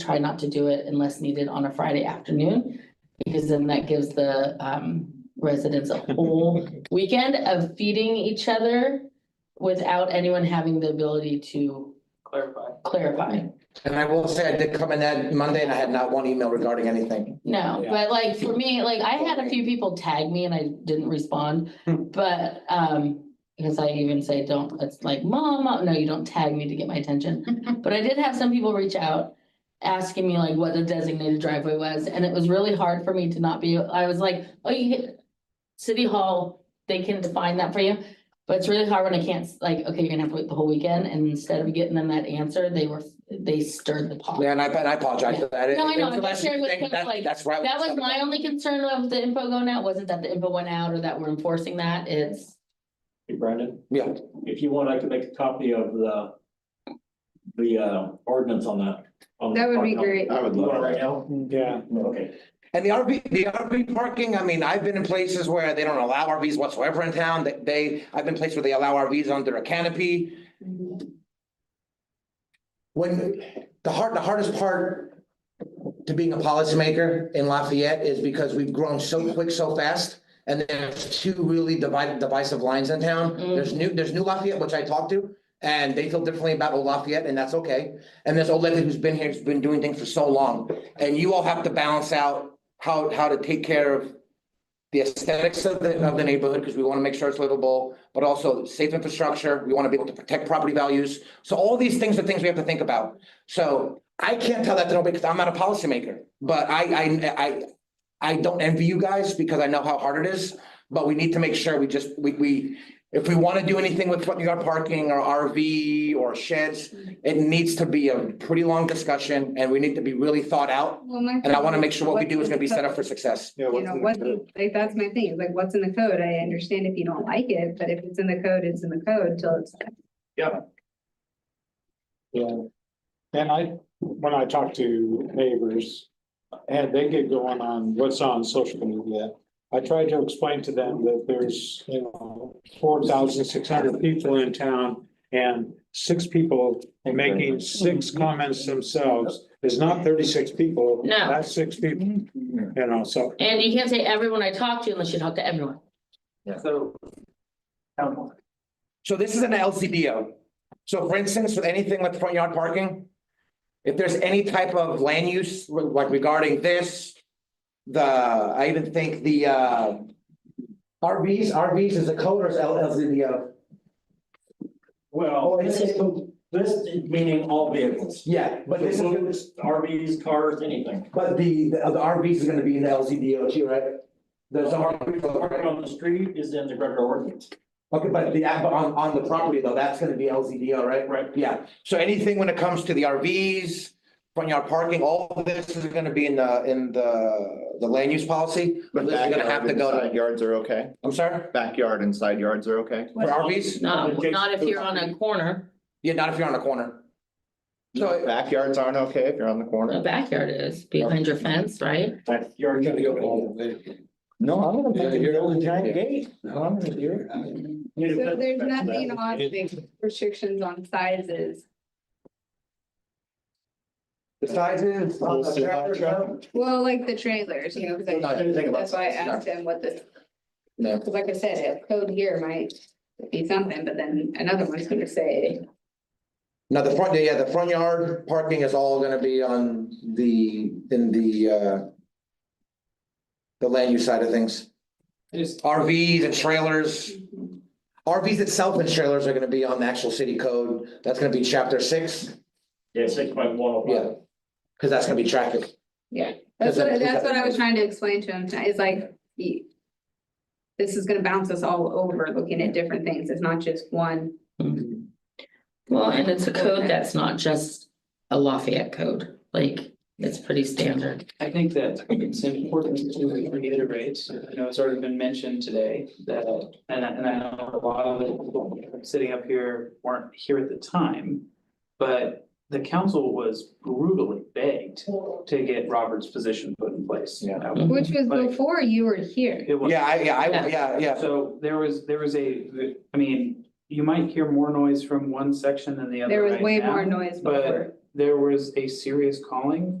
try not to do it unless needed on a Friday afternoon. Because then that gives the um residents a whole weekend of feeding each other without anyone having the ability to clarify. clarify. And I will say, I did come in that Monday and I had not one email regarding anything. No, Yeah. but like for me, like I had a few people tag me and I didn't respond, but um. Because I even say, don't, it's like, mom, Mom," no, you don't tag me to get my attention, but I did have some people reach out. Asking me like what the designated driveway was, and it was really hard for me to not be, I was like, oh, you hit. City Hall, they can define that for you, but it's really hard when I can't, like, okay, you're gonna have to wait the whole weekend, and instead of getting them that answer, they were, they stirred the pot. Yeah, and I, and I apologize for that. No, I know. It was the I'm last just sharing with thing. Kim, That- like, That's right. That was my only concern of the info going out, wasn't that the info went out or that we're enforcing that, it's, Hey Brandon, Yeah, if you want, I could make a copy of the, the uh, ordinance on that. on the That would be park. great. I would You want it love right it. now? Yeah, Okay. and the RV, the RV parking, I mean, I've been in places where they don't allow RVs whatsoever in town, that they, I've been places where they allow RVs under a canopy. When, the hard, the hardest part to being a policymaker in Lafayette is because we've grown so quick, so fast. And there's two really divided divisive lines in town. There's new, there's new Lafayette, which I talked to, and they feel differently about old Lafayette, and that's okay. And there's old Lafayette who's been here, who's been doing things for so long, and you all have to balance out how, how to take care of the aesthetics of the, of the neighborhood, because we want to make sure it's livable, but also safe infrastructure. We want to be able to protect property values. So all these things are things we have to think about. So I can't tell that to nobody because I'm not a policymaker, but I, I, I, I don't envy you guys because I know how hard it is, but we need to make sure we just, we, we, if we want to do anything with front yard parking or RV or sheds, it needs to be a pretty long discussion and we need to be really thought out. And I want to make sure what we do is going to be set up for success. Yeah, You what's know, in the what's, code? like, that's my thing, is like, what's in the code? I understand if you don't like it, but if it's in the code, it's in the code till it's. yeah. And I, when I talk to neighbors, and they get going on what's on social media. I try to explain to them that there's, you know, four thousand six hundred people in town. And six people Mm-hmm. making six comments themselves is not thirty-six people. No. That's six people, you know, so and you can't say everyone I talk to unless you talk to everyone. So. town- So this is an LCDO. So for instance, with anything with front yard parking, if there's any type of land use, re- like regarding this, the, I even think the, uh, RVs, RVs is a code or is L- LCDO? Well, Oh, this is, this meaning all vehicles. Yeah, but this is, Balloons, RVs, cars, anything. but the, the RVs is gonna be in the LCDO too, right? There's a Parking RV, on the street is in the regular ordinance. okay, but the, but on, on the property though, that's gonna be LCDO, right? Right. Yeah, so anything when it comes to the RVs, front yard parking, all of this is gonna be in the, in the, the land use policy. But But this is gonna have to backyard and go side to, yards are okay? I'm sorry, Backyard and side yards are okay? for RVs? Not, not if you're on a corner, Yeah, not if you're on a corner. So, Backyards aren't okay if you're on the the corner? backyard is behind your fence, right? That's, you're gonna go. no, I'm gonna Yeah, you're- build a giant yeah. gate. So there's nothing on the restrictions on sizes. The sizes on the tractor. Well, like the trailers, you know, because No, I didn't think I, about that's why I that. asked him what the. No. Because like I said, a code here might be something, but then another one's gonna say, Now, the front, yeah, the front yard parking is all gonna be on the, in the, uh, the land use side of things. RVs and trailers. RVs itself and trailers are gonna be on the actual city code. That's gonna be chapter six. Yeah, six by one oh Yeah. five. Cause that's gonna be traffic. that's Is that- what, is that's that- what I was trying to explain to him tonight, is like, he. This is gonna bounce us all over looking at different things, it's not just one. Well, and it's a code that's not just a Lafayette code, like, it's pretty standard. I think that it's important to reiterate, you know, it's already been mentioned today that, and I, and I know a lot of the people sitting up here weren't here at the time. But the council was brutally begged to get Robert's position put in place. Yeah. Which was Mm-hmm. Like- before you were here. It was. Yeah, I, yeah, I, yeah, yeah. So there was, there was a, I mean, you might hear more noise from one section than the other There was right way now. more noise but- before. there was a serious calling